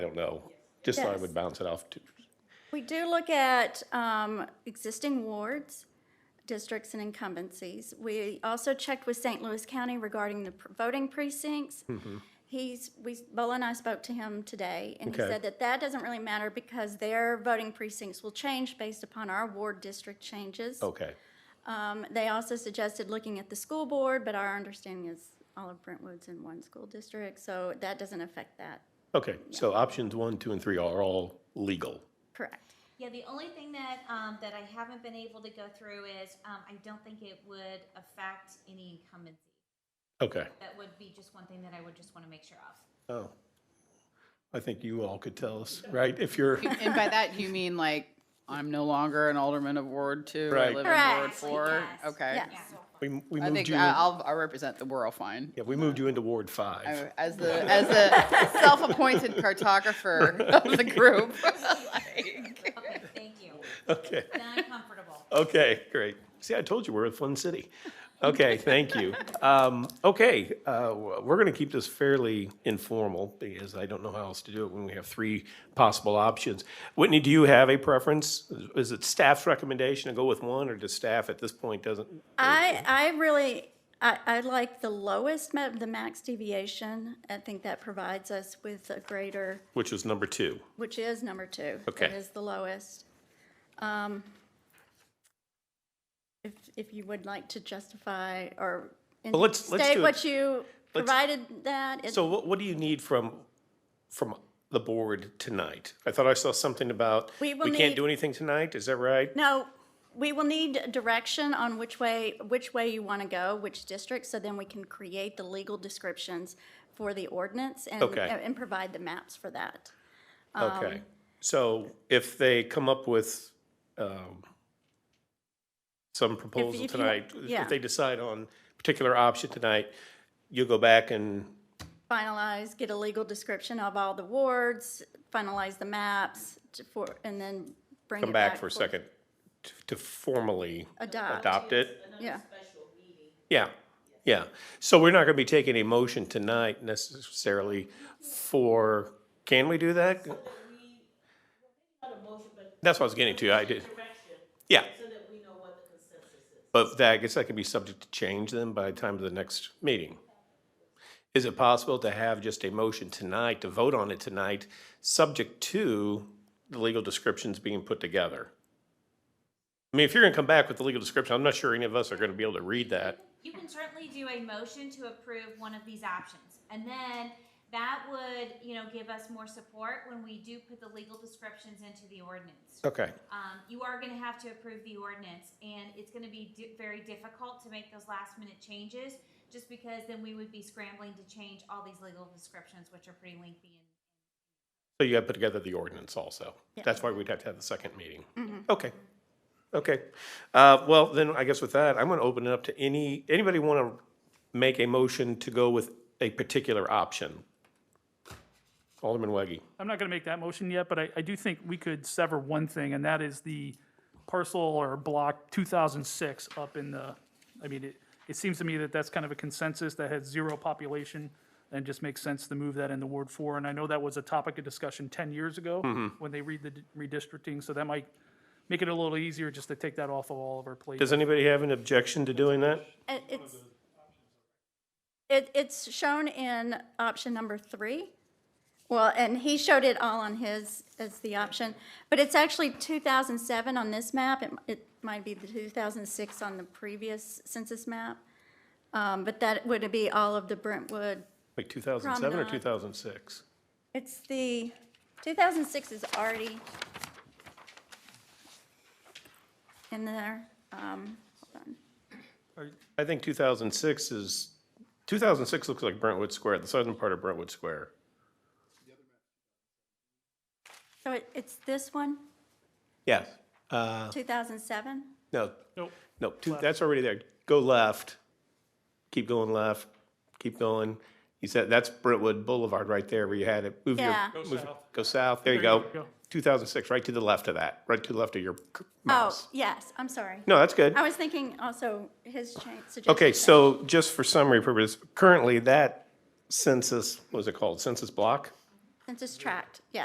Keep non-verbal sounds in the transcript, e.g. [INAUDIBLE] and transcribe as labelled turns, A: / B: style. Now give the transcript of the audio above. A: I don't know. Just thought I
B: Yes.
A: would bounce it off to,
B: We do look at um, existing wards, districts, and incumbencies. We also checked with St. Louis County regarding the pr- voting precincts. He's, we, Bola and I spoke to him today, and he
A: Okay.
B: said that that doesn't really matter because their voting precincts will change based upon our ward district changes.
A: okay.
B: Um, They also suggested looking at the school board, but our understanding is all of Brentwood's in one school district, so that doesn't affect that.
A: Okay, so options one, two, and three are all legal.
B: Correct.
C: Yeah, the only thing that, um, that I haven't been able to go through is, um, I don't think it would affect any incumbency.
A: Okay.
C: That would be just one thing that I would just want to make sure of.
A: Oh. I think you all could tell us, right? If you're,
D: [LAUGHS] And by that, you mean like, I'm no longer an alderman of Ward Two, I
A: Right.
D: live
B: Correct.
D: in Ward Four?
C: Yes.
D: Okay.
B: Yes.
A: we, we
D: I
A: moved
D: think
A: you,
D: I-
A: in-
D: I'll, I'll represent the world fine.
A: yeah, we moved you into Ward Five.
D: I- As the,
A: [LAUGHS]
D: as the self-appointed cartographer of the group. Like,
C: Okay, thank you.
A: [LAUGHS] Okay,
C: Now I'm comfortable.
A: okay, great. See, I told you we're a fun city. Okay, thank you. Um, okay, uh, we're gonna keep this fairly informal because I don't know how else to do it when we have three possible options. Whitney, do you have a preference? Is it staff's recommendation to go with one or does staff at this point doesn't?
B: I, I really, I, I like the lowest, ma- the max deviation. I think that provides us with a greater,
A: Which was number two.
B: which is number two.
A: Okay.
B: That is the lowest. Um, If, if you would like to justify or in-
A: Well, let's- let's
B: state
A: do it.
B: what you provided that. it-
A: So what, what do you need from, from the board tonight? I thought I saw something about, we
B: We will
A: can't
B: need-
A: do anything tonight, is that right?
B: No, we will need direction on which way, which way you want to go, which district, so then we can create the legal descriptions for the ordinance and,
A: Okay.
B: and provide the maps for that. Um,
A: Okay, so if they come up with, um, some proposal
B: if you-
A: tonight,
B: yeah.
A: if they decide on a particular option tonight, you'll go back and,
B: Finalize, get a legal description of all the wards, finalize the maps to- for, and then bring
A: come
B: it
A: back for a second to- to formally
B: Adopt,
A: adopt it?
B: yeah.
A: Yeah, yeah. So we're not going to be taking a motion tonight necessarily for, can we do that? That's what I was getting to, I did. Yeah. But that, I guess that can be subject to change then by the time of the next meeting. Is it possible to have just a motion tonight, to vote on it tonight, subject to the legal descriptions being put together? I mean, if you're going to come back with the legal description, I'm not sure any of us are going to be able to read that.
C: You can certainly do a motion to approve one of these options. And then that would, you know, give us more support when we do put the legal descriptions into the ordinance.
A: Okay,
C: Um, you are gonna have to approve the ordinance, and it's gonna be di- very difficult to make those last minute changes, just because then we would be scrambling to change all these legal descriptions, which are pretty lengthy.
A: so you got to put together the ordinance also.
B: Yeah.
A: That's why we'd have to have the second meeting. Okay, okay. Uh, Well, then, I guess with that, I'm going to open it up to any, anybody want to make a motion to go with a particular option? Alderman Weggie,
E: I'm not going to make that motion yet, but I, I do think we could sever one thing, and that is the parcel or block 2006 up in the, I mean, it, it seems to me that that's kind of a consensus that has zero population, and just makes sense to move that into Ward 4. And I know that was a topic of discussion 10 years ago when they read the d- redistricting, so that might make it a little easier just to take that off of all of our plates.
A: does anybody have an objection to doing that?
B: It- It's, it, it's shown in option number three. Well, and he showed it all on his, as the option, but it's actually 2007 on this map. It, it might be the 2006 on the previous census map. Um, But that would be all of the Brentwood.
A: Like 2007 or
B: Promenade.
A: 2006?
B: It's the, 2006 is already in there. Um, Hold on.
A: I think 2006 is, 2006 looks like Brentwood Square, the southern part of Brentwood Square.
B: So it- it's this one,
A: Yes. Uh,
B: 2007?
A: No,
E: Nope.
A: No, two, that's already there. Go left, keep going left, keep going. You said that's Brentwood Boulevard right there where you had it. Move your,
B: Yeah.
A: move, your- go south. There you go.
E: go.
A: 2006, right to the left of that, right to the left of your c-
B: Oh,
A: mouse.
B: yes, I'm sorry.
A: No, that's good.
B: I was thinking also his change suggestion.
A: Okay, so just for summary purpose, currently that census, what is it called? Census block?
B: census tract, yes.